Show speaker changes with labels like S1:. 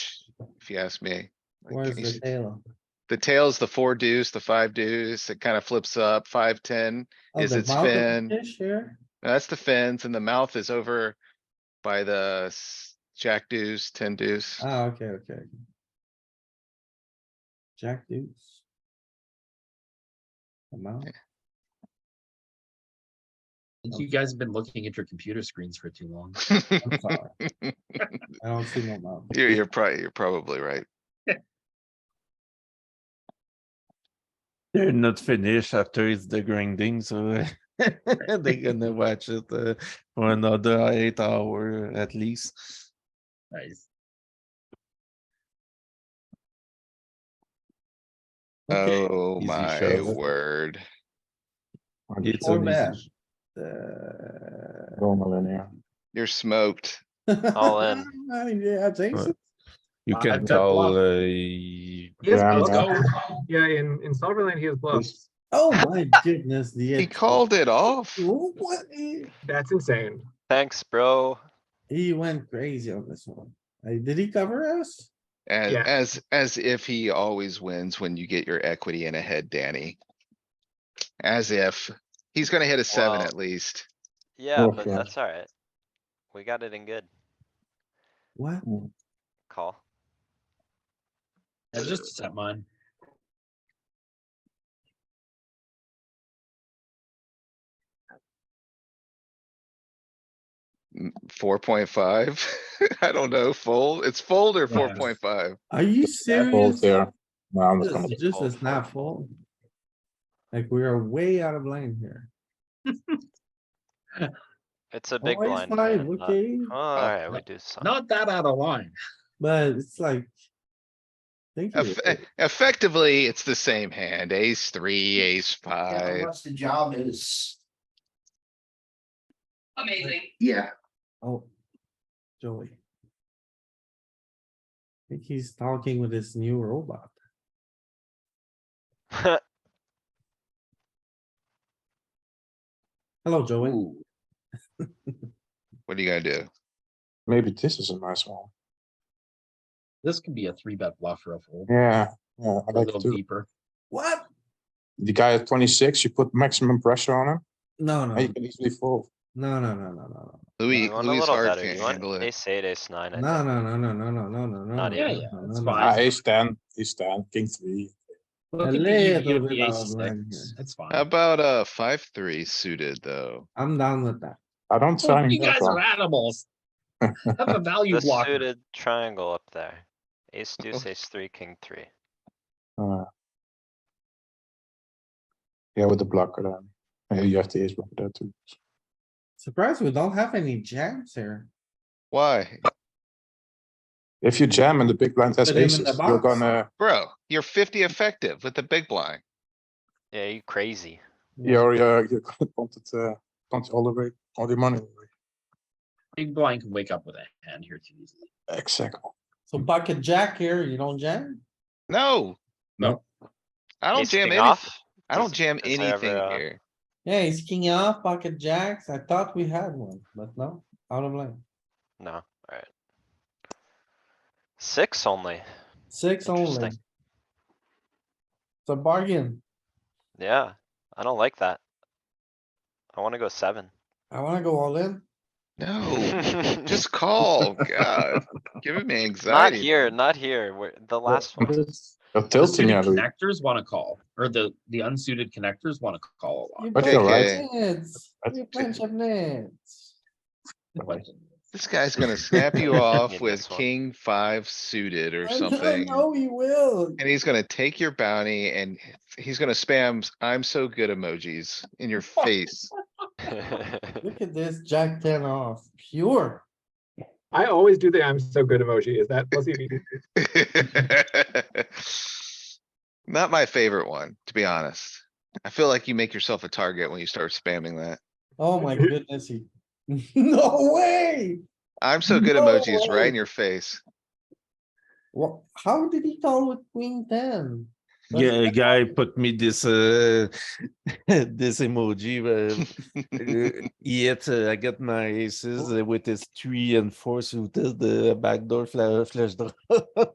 S1: you ask me. Like,
S2: Where's
S1: can you s-
S2: the tail?
S1: The tails, the four deuce, the five deuce, it kind of flips up, five, ten.
S2: Oh,
S1: Is
S2: the
S1: its
S2: bottom
S1: fin-
S2: Fish here,
S1: That's the fins and the mouth is over by the s- jack deuce, ten deuce.
S2: ah, okay, okay. okay. Jack deuce. The mouth, Oh.
S3: You guys have been looking at your computer screens for too long.
S2: I'm sorry. I don't see no mouth.
S1: You're, you're probably, you're probably right.
S4: They're not finished after it's the grinding, so they're gonna watch it uh, for another eight hour at least.
S3: Nice.
S2: Okay,
S1: Oh
S4: easy
S1: my
S4: shove.
S1: word.
S4: It's
S2: four
S4: an
S2: bet.
S4: easy-
S2: uh,
S1: You're smoked.
S5: All in.
S2: Yeah, Jason,
S4: You
S3: Uh,
S4: can
S3: bet
S4: call,
S3: bluff.
S4: uh,
S6: Yeah,
S3: Let's
S6: no.
S3: go.
S6: yeah, in, in solver lane, he has bluffs.
S2: oh my goodness, the.
S1: He called it off.
S2: What? He-
S6: That's insane.
S5: Thanks, bro.
S2: He went crazy on this one. Uh, Did he cover us?
S1: As,
S6: Yeah.
S1: as, as if he always wins when you get your equity in a head, Danny. As if. He's gonna hit a seven
S5: Wow.
S1: at least.
S5: Yeah,
S7: Oh,
S5: but
S7: yeah.
S5: that's alright. We got it in good
S2: What?
S5: call.
S3: Yeah, just set mine.
S1: Four point five. I don't know, fold. It's fold or
S3: Yeah.
S1: four point five.
S2: Are you
S7: Fold
S2: serious?
S7: there. No, I'm just
S2: This
S7: gonna,
S2: is just is not full. Like, we are way out of line here.
S5: It's a big
S2: Always
S5: blind.
S2: five,
S5: man, not-
S2: okay,
S5: Oh, Alright, we do some.
S3: Not that out of line.
S2: but it's like. Thank you.
S1: e, Effectively, it's the same hand. Ace three, ace five.
S8: the job is. Amazing.
S2: Yeah. Oh. Joey. I think he's talking with his new robot. Hello, Joey.
S3: Ooh,
S1: What are you gonna do?
S7: maybe this is a nice one.
S3: this could be a three bet bluff ruffle.
S7: Yeah, yeah, I
S3: A
S7: like
S3: little
S7: to.
S3: deeper.
S2: What?
S7: The guy at twenty-six, you put maximum pressure on him,
S2: No,
S7: and
S2: no,
S7: you can easily fold.
S2: no, no, no, no, no,
S1: Louis,
S5: You want a
S1: Louis
S5: little
S1: hard
S5: better.
S1: can't
S5: You want
S1: handle it.
S5: ace eight, ace nine. I
S2: no, no,
S5: think.
S2: no, no, no, no, no, no, no.
S5: Not
S2: no,
S3: even.
S2: no,
S3: Yeah,
S2: no,
S3: it's
S2: no,
S3: fine.
S7: Ah,
S3: Nice.
S7: ace ten, ace ten, king three.
S3: Look at
S2: A
S3: the E
S2: little
S3: EV of
S2: bit
S3: the
S2: out
S3: ace
S2: of line
S3: six.
S2: here.
S3: That's
S1: How
S3: fine.
S1: about a five, three suited though?
S2: I'm down with that.
S7: I don't
S2: Oh,
S3: Look,
S7: sign
S3: You
S7: that
S3: guys are
S7: one.
S3: animals. Have a value
S5: The
S3: blocker.
S5: suited triangle up there. Ace
S1: Oh.
S5: deuce, ace three, king three.
S7: Uh, Yeah, with the blocker then. Yeah, you have the ace blocker there too.
S2: Surprised we don't have any jams here.
S1: Why?
S7: If you jam and the big blind has
S2: Put him in the
S7: aces, you're
S2: box.
S7: gonna,
S1: Bro, you're fifty effective with the big blind.
S5: Yeah, you crazy.
S7: you're, you're, you're gonna punt it, uh, punt all the way, all the money. away.
S3: Big blind can wake up with a hand here too easily.
S7: Exactly.
S2: So bucket jack here, you don't jam?
S1: No.
S3: No.
S1: I don't
S5: Ace
S1: jam
S5: king
S1: any,
S5: off? uh,
S1: I don't
S5: Does-
S1: jam
S5: is there ever
S1: anything
S5: a-
S1: here.
S2: Yeah, he's king off, pocket jacks. I thought we had one, but no, out of line.
S5: No, alright. Six only.
S2: Six only.
S5: Interesting.
S2: It's a bargain.
S5: Yeah, I don't like that. I wanna go seven.
S2: I wanna go all in.
S1: No, just call, god, giving me
S5: Not
S1: anxiety.
S5: here, not here. We're, the last one.
S7: You're
S3: The
S7: tilting,
S3: suited
S7: yeah, Louis.
S3: Connectors wanna call, or the, the unsuited connectors wanna call a
S2: You
S3: lot.
S7: But you're
S2: play
S1: right.
S2: nets.
S7: That's-
S2: You play nets.
S3: But
S1: This guy's gonna snap you off
S5: Need
S1: with
S5: this one.
S1: king five suited or
S2: I know-
S1: something.
S2: I know he will.
S1: And he's gonna take your bounty and he's gonna spam s- I'm so good emojis in your face.
S2: Look at this, jack ten off, pure.
S6: I always do the I'm so good emoji. Is that plus EV?
S1: Not my favorite one, to be honest. I feel like you make yourself a target when you start spamming that.
S2: Oh my goodness, he. No way!
S1: I'm so good
S2: No
S1: emojis right in
S2: way.
S1: your face.
S2: What, how did he call with queen ten? But-
S4: Yeah, a guy put me this, uh, this emoji, uh, uh, Yet uh, I get my uh, aces uh, with his three and four suited, the backdoor fla- flush draw.